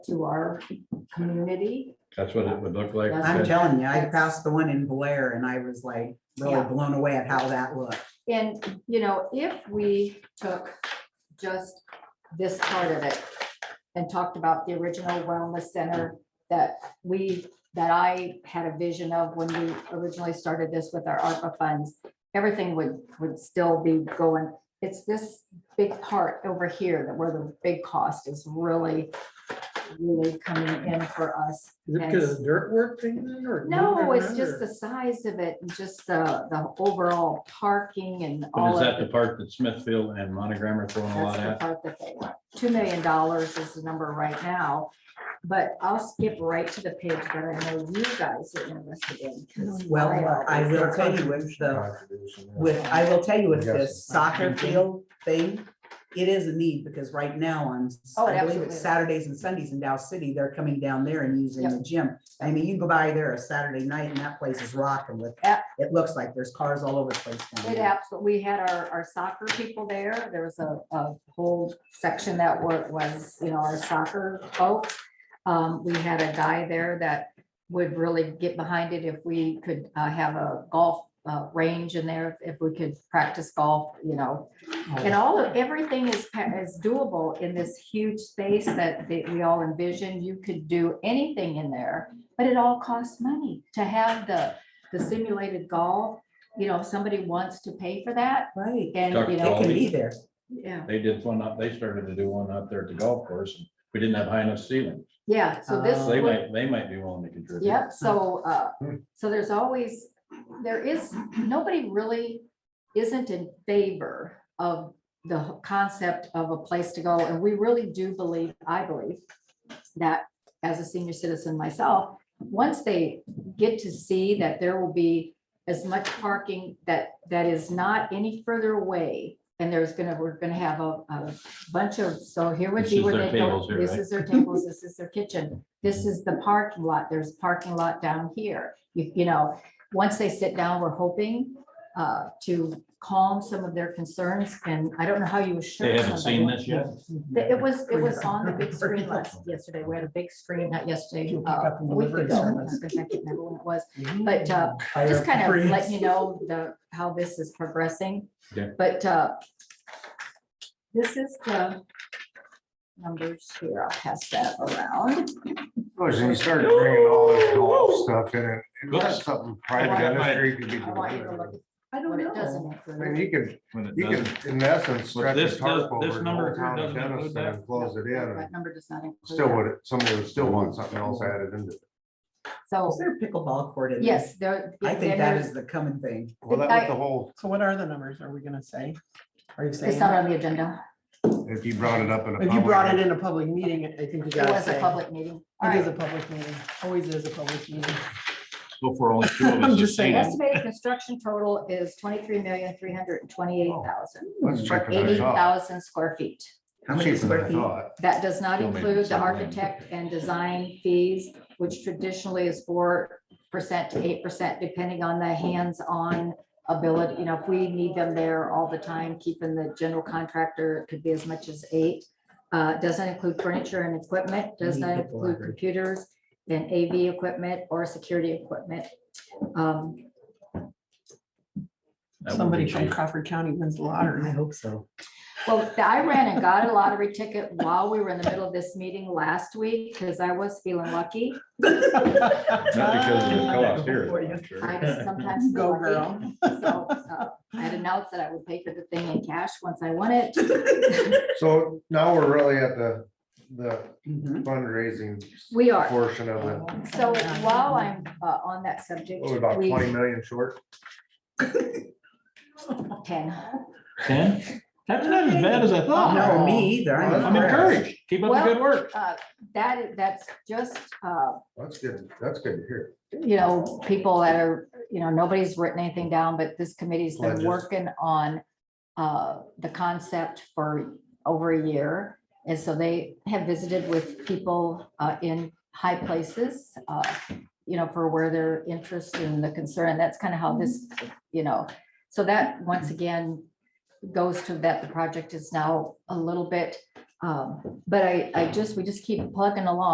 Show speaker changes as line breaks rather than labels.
to our community.
That's what it would look like.
I'm
That's-
That-
telling you, I
That's-
passed the one in Blair and I was like really
Yeah.
blown away at how that looked.
And, you know, if we took just this part of it and talked about the original wellness center that we, that I had a vision of when we originally started this with our ARPA funds, everything would, would still be going. It's this big part over here that where the big cost is really, really coming in for us.
Is it because of the dirt work thing then, or?
No,
moving
it's
around,
just
or-
the size of it and just the, the overall parking and
But is
all
that
of
the
it.
part that Smithfield and Monogram are throwing a
That's
lot
the
at?
part that they want. Two million dollars is the number right now. But I'll skip right to the page that I know you guys are interested in. 'cause
Well,
always-
I will tell you with the, with, I will tell you with this soccer field thing, it is a need because right now on,
Oh,
I believe
absolutely.
it's Saturdays and Sundays in Dow City, they're coming down there and using
Yep.
the gym. I mean, you go by there a Saturday night and that place is rocking with, eh,
Yeah.
it looks like there's cars all over the place. down
It
there.
absolutely, we had our, our soccer people there. There was a, a whole section that wa- was, you know, our soccer folks. Um, we had a guy there that would really get behind it if we could uh, have a golf uh, range in there, if we could practice golf, you know. And all of, everything is, pa- is doable in this huge space that, that we all envisioned. You could do anything in there, but it all costs money to have the, the simulated golf you know, if somebody wants to pay for that
Right,
and,
Dr.
you
it
know,
can be there.
yeah,
They did one up, they started to do one up there at the golf course. and We didn't have high enough ceilings.
yeah, so this,
Uh,
They
would-
might, they might be willing to contribute.
Uh-huh. yep, so, uh,
Hmm.
so there's always, there is, nobody really isn't in favor of the concept of a place to go, and we really do believe, I believe, that as a senior citizen myself, once they get to see that there will be as much parking that, that is not any further away, and there's gonna, we're gonna have a, a bunch of, so here would
This
be
is
where
their
they go.
tables here,
This
right?
is their tables, this is their kitchen, this is the parking lot, there's parking lot down here. You, you know, once they sit down, we're hoping, uh, to calm some of their concerns, and I don't know how you assure.
They haven't
somebody-
seen this yet?
the- It was, it was on the big
Pretty
screen last, yesterday, we had a big screen, not yesterday,
You'll pick
uh,
up
a
on the
week
livery
ago,
service.
because I can't remember when it was. But, uh, Just kind of let you know the, how this is progressing.
Okay.
But, uh, this is the numbers here, I'll pass that around.
Was when you started bringing all this golf stuff in it, it
Good.
was something private industry could be
I want you to
doing.
look at
I
what
don't
it
know.
doesn't
I mean,
include.
you could,
When it
you
does,
could, in essence, stretch
this does-
a tarp
this
over the
number here
whole town of
doesn't include
Denison
that?
and close it in, and
That number does not include.
still
that.
would, somebody would still want something else added into it.
Is
So,
there a pickleball court in there?
yes, there.
I think
then
that
there's-
is the coming thing.
Well, that was the whole,
So what are the numbers? Are we gonna say? Are you
It's
saying?
not on the agenda,
if you brought it up in a.
If you brought it
public-
in a public meeting, I think you
it
gotta
was
say.
a public meeting. All
It is a
right,
public meeting. Always is a public meeting.
so for only two of
I'm
us to
just
see
saying.
it,
estimated construction total is twenty-three million, three hundred and twenty-eight thousand,
Let's check it
eighty
out.
thousand square feet.
How many square feet?
That does not
Still maybe
include the
some land.
architect and design fees, which traditionally is four percent to eight percent, depending on the hands-on ability. You know, if we need them there all the time, keeping the general contractor, it could be as much as eight. Uh, doesn't include furniture and equipment, does
Need
not
people
include
library.
computers and AV equipment or security equipment. Um,
that would
Somebody
be
from
cheap.
Crawford County wins the lottery.
I hope so.
Well, I ran and got a lottery ticket while we were in the middle of this meeting last week, because I was feeling lucky.
Not because of the
Ah.
cost here.
For you.
I'm sure.
I just sometimes. feel
Go
like
girl.
it. So, uh, I had announced that I would pay for the thing in cash once I won it.
So now we're really at the, the
Mhm.
fundraising
We are. Oh.
portion of it.
So while I'm uh, on that subject,
What, about
we,
twenty million short?
10.
Ten? That's not as bad as I thought.
No, me either. I'm
I'm encouraged. Keep up the
Well-
good work.
Uh, That, is- that's just, uh,
That's good, that's good to hear.
you know, people that are, you know, nobody's written anything down, but this committee's been
Pledges.
working on uh, the concept for over a year. And so they have visited with people uh, in high places, uh, you know, for where their interest and the concern, that's kind of how this, you know. So that, once again, goes to that the project is now a little bit, um, but I, I just, we just keep plugging along.